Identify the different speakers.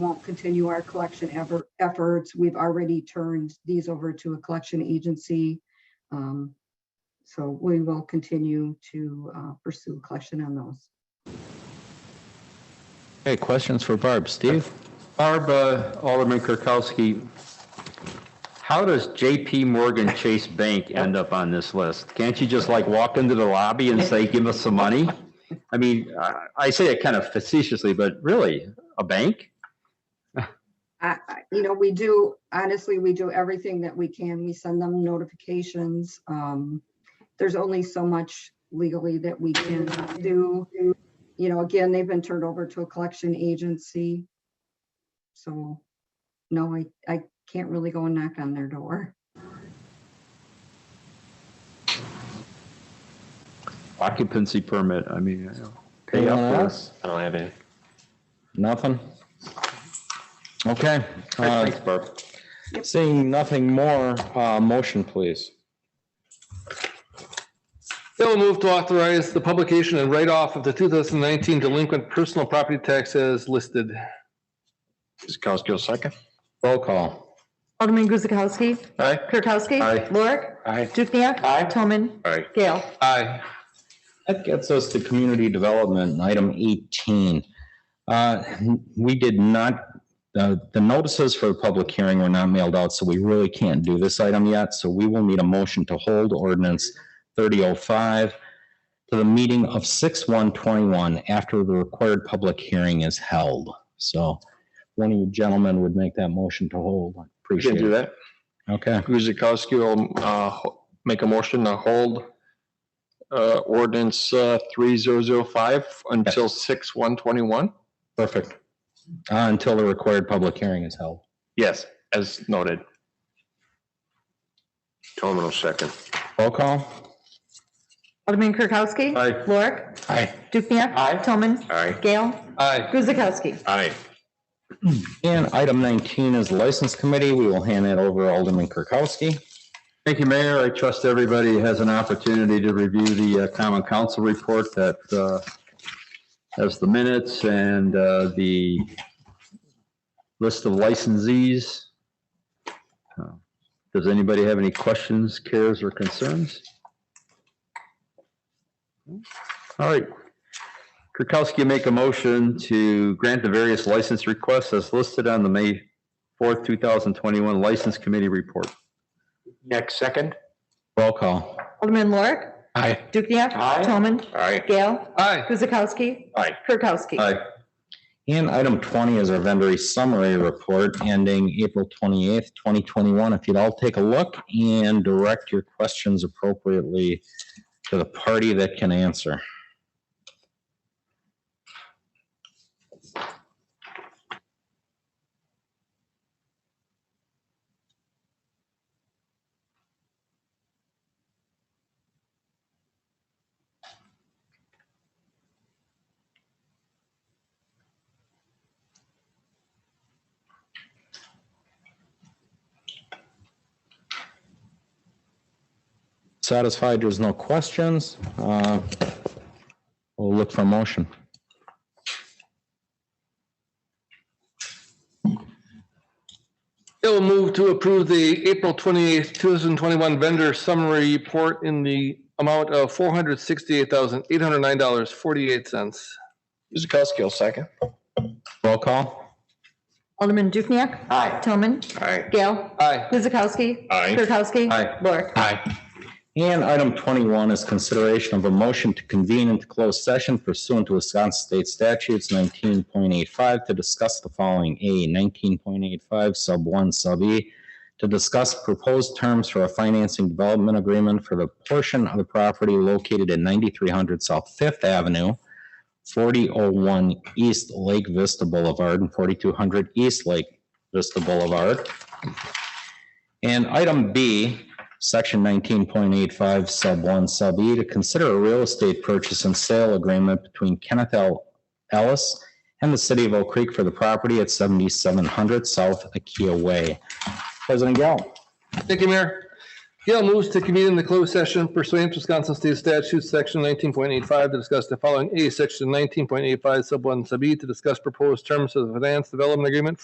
Speaker 1: won't continue our collection ever efforts. We've already turned these over to a collection agency. Um, So we will continue to uh, pursue collection on those.
Speaker 2: Okay, questions for Barb. Steve?
Speaker 3: Barb, uh, Alderman Kirkowski, how does JP Morgan Chase Bank end up on this list? Can't you just like walk into the lobby and say, give us some money? I mean, I- I say it kind of facetiously, but really, a bank?
Speaker 1: I, I- you know, we do, honestly, we do everything that we can. We send them notifications. Um, There's only so much legally that we can do. You know, again, they've been turned over to a collection agency. So, no, I, I can't really go and knock on their door.
Speaker 3: Occupancy permit, I mean, you know, pay up
Speaker 2: Anyone
Speaker 3: for it.
Speaker 2: else?
Speaker 4: I don't have any.
Speaker 2: Nothing? Okay, uh,
Speaker 3: Thanks, Barb.
Speaker 2: seeing nothing more, uh, motion please.
Speaker 4: Bill move to authorize the publication and write-off of the 2019 delinquent personal property tax as listed.
Speaker 3: Kirkowski, second.
Speaker 2: Roll call.
Speaker 5: Alderman Guzekowski.
Speaker 3: Aye.
Speaker 5: Kirkowski.
Speaker 3: Aye.
Speaker 5: Lorik.
Speaker 2: Aye.
Speaker 5: Dukenyak.
Speaker 2: Aye.
Speaker 5: Toman.
Speaker 3: Aye.
Speaker 5: Gale.
Speaker 4: Aye.
Speaker 2: That gets us to community development, item 18. Uh, We did not, uh, the notices for the public hearing were not mailed out, so we really can't do this item yet. So we will need a motion to hold ordinance 3005 to the meeting of 6/121 after the required public hearing is held. So one of you gentlemen would make that motion to hold. I
Speaker 4: We can
Speaker 2: Appreciate
Speaker 4: do
Speaker 2: it.
Speaker 4: that.
Speaker 2: Okay,
Speaker 4: Guzekowski will uh, ho- make a motion to hold uh, ordinance uh, 3005 until 6/121.
Speaker 2: perfect. Uh, Until the required public hearing is held.
Speaker 4: Yes, as noted.
Speaker 3: Toman will second.
Speaker 2: Roll call.
Speaker 5: Alderman Kirkowski.
Speaker 3: Aye.
Speaker 5: Lorik.
Speaker 2: Aye.
Speaker 5: Dukenyak.
Speaker 4: Aye.
Speaker 5: Toman.
Speaker 3: Aye.
Speaker 5: Gale.
Speaker 4: Aye.
Speaker 5: Guzekowski.
Speaker 3: Aye.
Speaker 2: And item 19 is License Committee. We will hand that over to Alderman Kirkowski.
Speaker 3: Thank you, Mayor. I trust everybody has an opportunity to review the uh, Common Council report that uh, has the minutes and uh, the list of licensees. Uh, Does anybody have any questions, cares, or concerns? All right. Kirkowski make a motion to grant the various license requests as listed on the May 4th, 2021 License Committee report.
Speaker 4: Next, second.
Speaker 2: Roll call.
Speaker 5: Alderman Lorik.
Speaker 4: Aye.
Speaker 5: Dukenyak. Toman.
Speaker 3: Aye.
Speaker 5: Gale.
Speaker 4: Aye.
Speaker 5: Guzekowski.
Speaker 3: Aye.
Speaker 5: Kirkowski.
Speaker 3: Aye.
Speaker 2: And item 20 is our vendor summary report ending April 28th, 2021. If you'd all take a look and direct your questions appropriately to the party that can answer. Satisfied there's no questions, uh, we'll look for a motion.
Speaker 4: Bill move to approve the April 28th, 2021 vendor summary report in the amount of $468,809.48. Guzekowski will second.
Speaker 2: Roll call.
Speaker 5: Alderman Dukenyak.
Speaker 4: Aye.
Speaker 5: Toman.
Speaker 4: Aye.
Speaker 5: Gale.
Speaker 4: Aye.
Speaker 5: Guzekowski.
Speaker 3: Aye.
Speaker 5: Kirkowski.
Speaker 3: Aye.
Speaker 5: Lorik.
Speaker 4: Aye.
Speaker 2: And item 21 is consideration of a motion to convene into closed session pursuant to Wisconsin State Statutes 19.85 to discuss the following. A, 19.85 sub 1 sub E, to discuss proposed terms for a financing development agreement for the portion of the property located at 9300 South Fifth Avenue, 4001 East Lake Vista Boulevard, and 4200 East Lake Vista Boulevard. And item B, Section 19.85, Sub 1, Sub E, to consider a real estate purchase and sale agreement between Kenneth L. Ellis and the city of Oak Creek for the property at 7700 South Akia Way. President Gale.
Speaker 4: Thank you, Mayor. Again, Gail moves to convene in the closed session pursuant to Wisconsin State Statute, Section 19.85, to discuss the following. A, Section 19.85, Sub 1, Sub E, to discuss proposed terms of the finance development agreement